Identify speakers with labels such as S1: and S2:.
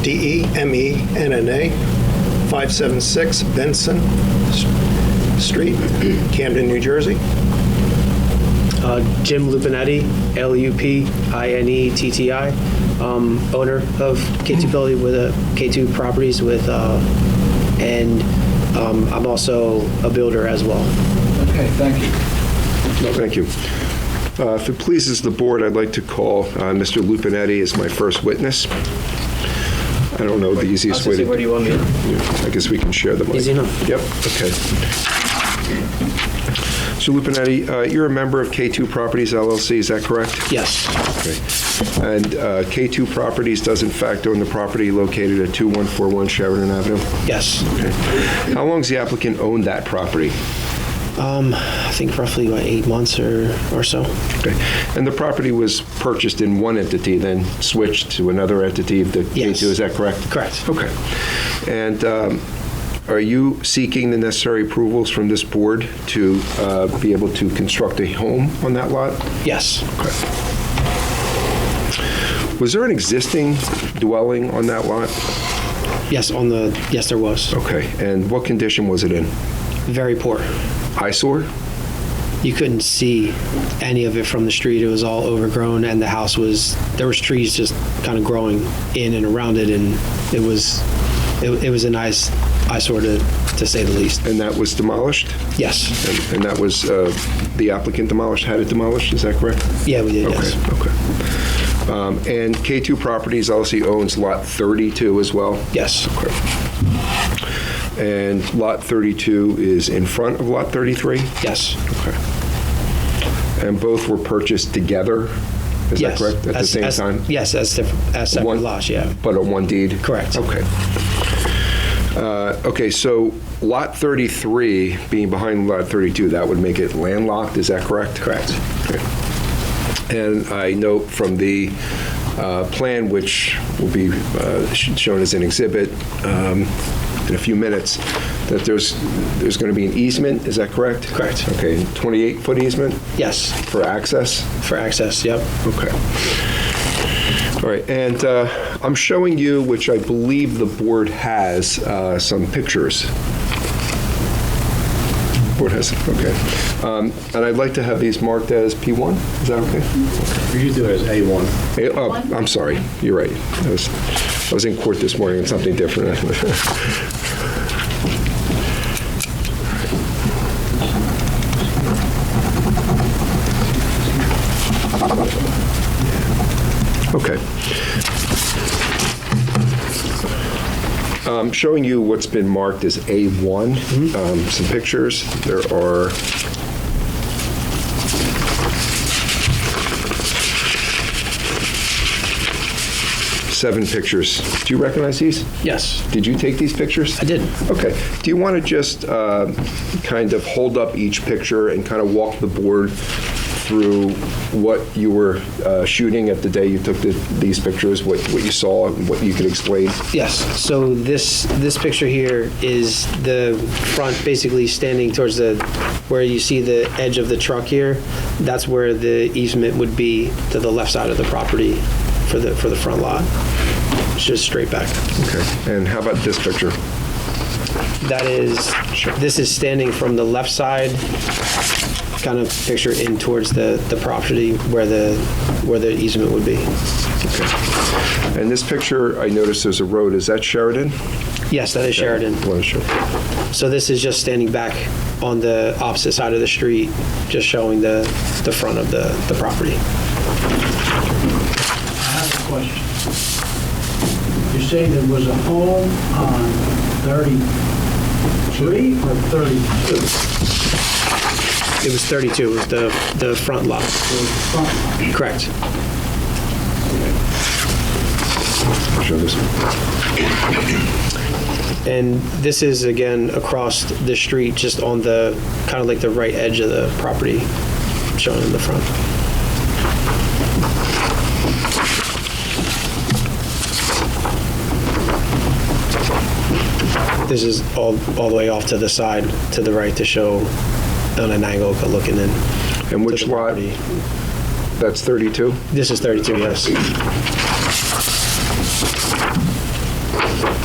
S1: E D-E-M-E-N-N-A, 576 Benson S- Street, Camden, New Jersey.
S2: Uh, Jim Lupinetti, E L-U-P-I-N-E-T-T-I, um, owner of K2 Building with uh, K2 Properties with, uh, and um, I'm also a builder as well.
S3: Okay, thank you.
S4: No, thank you. Uh, If it pleases the board, I'd like to call uh, Mr. Lupinetti as my first witness. I don't know the easiest way to...
S2: Where do you want me?
S4: I guess we can share the mic.
S2: Easy enough.
S4: Yep, okay. So Lupinetti, uh, you're a member of K2 Properties LLC, is that correct?
S2: Yes,
S4: Okay. And uh, K2 Properties does in fact own the property located at 2141 Sheridan Avenue?
S2: yes.
S4: How long's the applicant owned that property?
S2: Um, I think roughly about eight months or, or so.
S4: Okay. And the property was purchased in one entity, then switched to another entity of the
S2: Yes.
S4: K2, is that correct?
S2: Correct.
S4: Okay. And um, are you seeking the necessary approvals from this board to uh, be able to construct a home on that lot?
S2: Yes,
S4: Was there an existing dwelling on that lot?
S2: yes, on the, yes, there was.
S4: Okay. And what condition was it in?
S2: Very poor.
S4: Eyesore?
S2: You couldn't see any of it from the street. It was all overgrown and the house was, there was trees just kind of growing in and around it and it was, it, it was a nice eyesore to, to say the least.
S4: And that was demolished?
S2: Yes,
S4: And and that was, uh, the applicant demolished, had it demolished, is that correct?
S2: yeah, we did,
S4: Okay,
S2: yes.
S4: okay. Um, And K2 Properties LLC owns Lot 32 as well?
S2: Yes,
S4: And Lot 32 is in front of Lot 33?
S2: yes,
S4: And both were purchased together? Is that
S2: yes.
S4: correct? At the
S2: As-
S4: same
S2: as-
S4: time?
S2: Yes, as, diff- as separate
S4: One-
S2: lots, yeah.
S4: But on one deed?
S2: Correct.
S4: Okay. Uh, Okay, so Lot 33 being behind Lot 32, that would make it landlocked, is that correct? Correct. And I note from the uh, plan, which will be uh, sh- shown as an exhibit um, in a few minutes, that there's, there's going to be an easement, is that correct?
S2: Correct.
S4: Okay, 28-foot easement
S2: Yes,
S4: for access?
S2: for access, yep.
S4: Okay. All right, and uh, I'm showing you, which I believe the board has, uh, some pictures. Board has, okay. Um, And I'd like to have these marked as P1, is that okay?
S5: You do it as A1.
S4: Eh, oh, I'm sorry, you're right. I was, I was in court this morning and something different. Okay. I'm Um, showing you what's been marked as A1, um, some pictures. There are, seven pictures. Do you recognize these?
S2: Yes,
S4: Did you take these pictures?
S2: I did.
S4: Okay. Do you want to just uh, kind of hold up each picture and kind of walk the board through what you were uh, shooting at the day you took the- these pictures, what what you saw, and what you could explain?
S2: Yes, so this, this picture here is the front basically standing towards the, where you see the edge of the truck here. That's where the easement would be to the left side of the property for the, for the front lot. It's Just straight back.
S4: Okay. And how about this picture?
S2: That is, this is standing from the left side, kind of picture in towards the, the property where the, where the easement would be.
S4: And this picture, I noticed there's a road. Is that Sheridan?
S2: Yes, that is Sheridan.
S4: Well, sure.
S2: So this is just standing back on the opposite side of the street, just showing the, the front of the, the property.
S3: I have a question. You say there was a home on 33 or 32?
S2: It was 32, was the, the front lot.
S3: There was a front lot.
S2: Correct.
S4: Show this one.
S2: And this is, again, across the street, just on the, kind of like the right edge of the property, shown in the front. This is all, all the way off to the side, to the right, to show on an angle looking in.
S4: And which
S2: to the
S4: lot?
S2: property.
S4: That's 32?
S2: This is 32, yes.